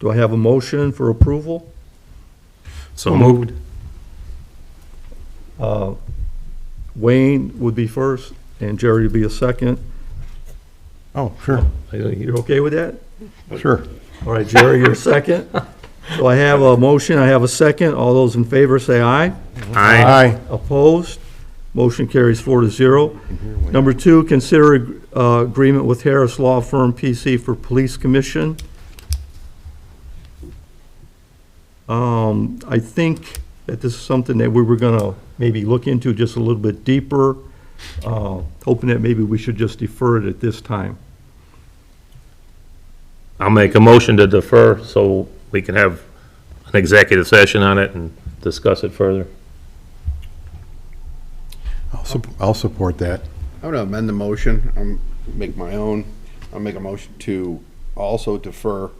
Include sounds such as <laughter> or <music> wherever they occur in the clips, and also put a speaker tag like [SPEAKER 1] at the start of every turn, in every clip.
[SPEAKER 1] Do I have a motion for approval?
[SPEAKER 2] So moved.
[SPEAKER 1] Uh, Wayne would be first, and Jerry would be a second.
[SPEAKER 3] Oh, sure,
[SPEAKER 1] Are you- You're okay with that?
[SPEAKER 3] sure.
[SPEAKER 1] All right, Jerry, you're <laughs> second. So I have a motion, I have a second. All those in favor say aye.
[SPEAKER 2] Aye.
[SPEAKER 1] Opposed? Motion carries four to zero. Number two, consider uh, agreement with Harris Law Firm PC for Police Commission. Um, I think that this is something that we were gonna maybe look into just a little bit deeper, uh, hoping that maybe we should just defer it at this time.
[SPEAKER 2] I'll make a motion to defer so we can have an executive session on it and discuss it further.
[SPEAKER 3] I'll sup- I'll support that.
[SPEAKER 4] I'm gonna amend the motion, I'm, make my own, I'll make a motion to also defer,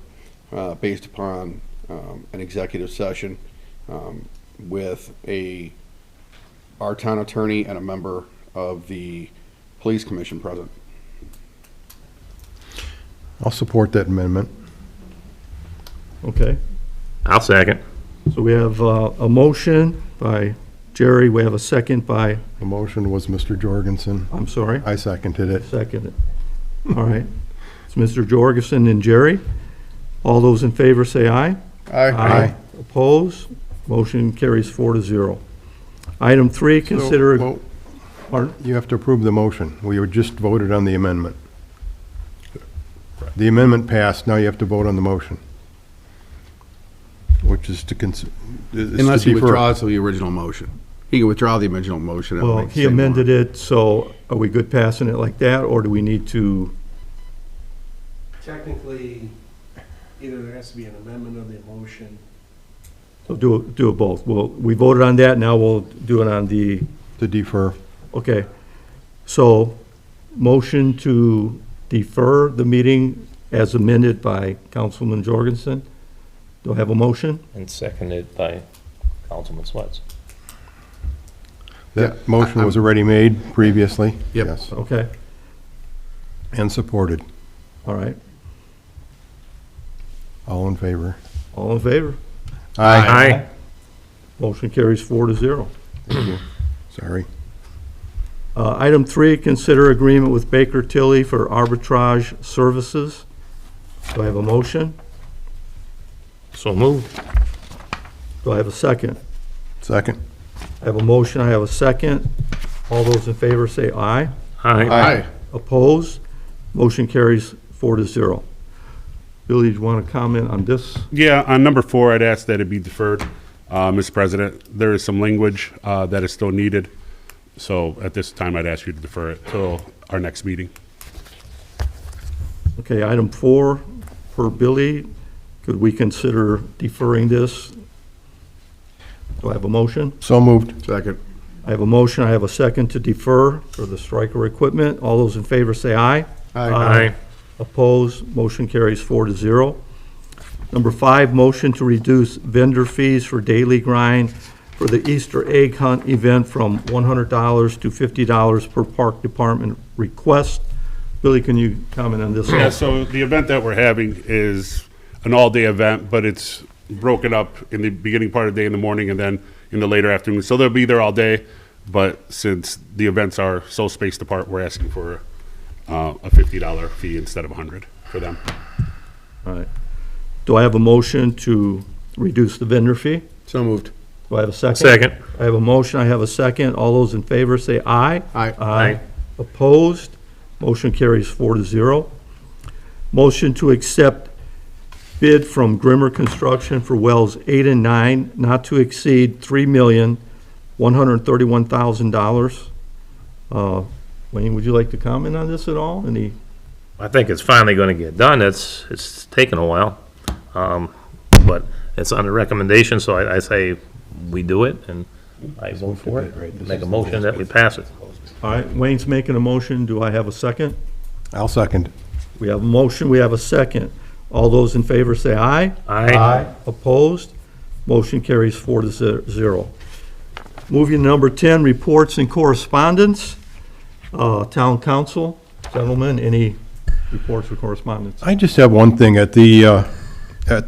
[SPEAKER 4] uh, based upon, um, an executive session, um, with a, our town attorney and a member of the police commission present.
[SPEAKER 3] I'll support that amendment.
[SPEAKER 1] Okay?
[SPEAKER 2] I'll second.
[SPEAKER 1] So we have uh, a motion by Jerry, we have a second by,
[SPEAKER 3] The motion was Mr. Jorgensen.
[SPEAKER 1] I'm sorry?
[SPEAKER 3] I seconded it.
[SPEAKER 1] Second. All right. It's Mr. Jorgensen and Jerry. All those in favor say aye. Opposed? Motion carries four to zero. Item three, consider,
[SPEAKER 3] Well,
[SPEAKER 1] pardon?
[SPEAKER 3] You have to approve the motion. We were just voted on the amendment. The amendment passed, now you have to vote on the motion. Which is to cons- is to
[SPEAKER 4] Unless he
[SPEAKER 3] defer.
[SPEAKER 4] withdraws the original motion. He can withdraw the original motion.
[SPEAKER 1] well, he amended it, so are we good passing it like that, or do we need to?
[SPEAKER 5] Technically, either there has to be an amendment of the motion.
[SPEAKER 1] So do, it- do it both. Well, we voted on that, now we'll do it on the,
[SPEAKER 3] To defer.
[SPEAKER 1] okay. So, motion to defer the meeting as amended by Councilman Jorgensen. Do I have a motion?
[SPEAKER 2] And seconded by Councilman Swets.
[SPEAKER 3] That motion was already made previously.
[SPEAKER 4] Yep.
[SPEAKER 3] Yes,
[SPEAKER 1] Okay.
[SPEAKER 3] and supported.
[SPEAKER 1] All right,
[SPEAKER 3] All in favor?
[SPEAKER 1] all in favor?
[SPEAKER 2] Aye.
[SPEAKER 1] Motion carries four to zero.
[SPEAKER 3] Sorry.
[SPEAKER 1] Uh, Item three, consider agreement with Baker Tilly for arbitrage services. Do I have a motion?
[SPEAKER 2] So moved.
[SPEAKER 1] Do I have a second?
[SPEAKER 3] Second.
[SPEAKER 1] I have a motion, I have a second. All those in favor say aye.
[SPEAKER 2] Aye.
[SPEAKER 4] Aye.
[SPEAKER 1] Opposed? Motion carries four to zero. Billy, do you want to comment on this?
[SPEAKER 6] Yeah, on number four, I'd ask that it be deferred, uh, Mr. President. There is some language uh, that is still needed, so at this time, I'd ask you to defer it till our next meeting.
[SPEAKER 1] Okay, item four, per Billy, could we consider deferring this? Do I have a motion?
[SPEAKER 3] So moved.
[SPEAKER 4] Second.
[SPEAKER 1] I have a motion, I have a second to defer for the striker equipment. All those in favor say aye.
[SPEAKER 2] Aye.
[SPEAKER 1] Opposed, motion carries four to zero. Number five, motion to reduce vendor fees for daily grind for the Easter egg hunt event from $100 to $50 per park department request. Billy, can you comment on this?
[SPEAKER 6] Yeah, so the event that we're having is an all-day event, but it's broken up in the beginning part of the day in the morning and then in the later afternoon. So they'll be there all day, but since the events are so spaced apart, we're asking for uh, a $50 fee instead of 100 for them.
[SPEAKER 1] All right. Do I have a motion to reduce the vendor fee?
[SPEAKER 4] So moved.
[SPEAKER 1] Do I have a second?
[SPEAKER 2] Second.
[SPEAKER 1] I have a motion, I have a second. All those in favor say aye.
[SPEAKER 4] Aye.
[SPEAKER 1] Aye. Opposed? Motion carries four to zero. Motion to accept bid from Grimmer Construction for wells eight and nine, not to exceed three million, one hundred and thirty-one thousand dollars. Uh, Wayne, would you like to comment on this at all? Any,
[SPEAKER 2] I think it's finally going to get done. It's, it's taken a while. Um, But it's under recommendation, so I, I say we do it and I vote for it. Make a motion that we pass it.
[SPEAKER 1] all right, Wayne's making a motion. Do I have a second?
[SPEAKER 3] I'll second.
[SPEAKER 1] We have a motion, we have a second. All those in favor say aye.
[SPEAKER 2] Aye.
[SPEAKER 1] Opposed? Motion carries four to ze- zero. Moving to number 10, reports and correspondence. Uh, Town council, gentlemen, any reports or correspondence?
[SPEAKER 3] I just have one thing. At the uh,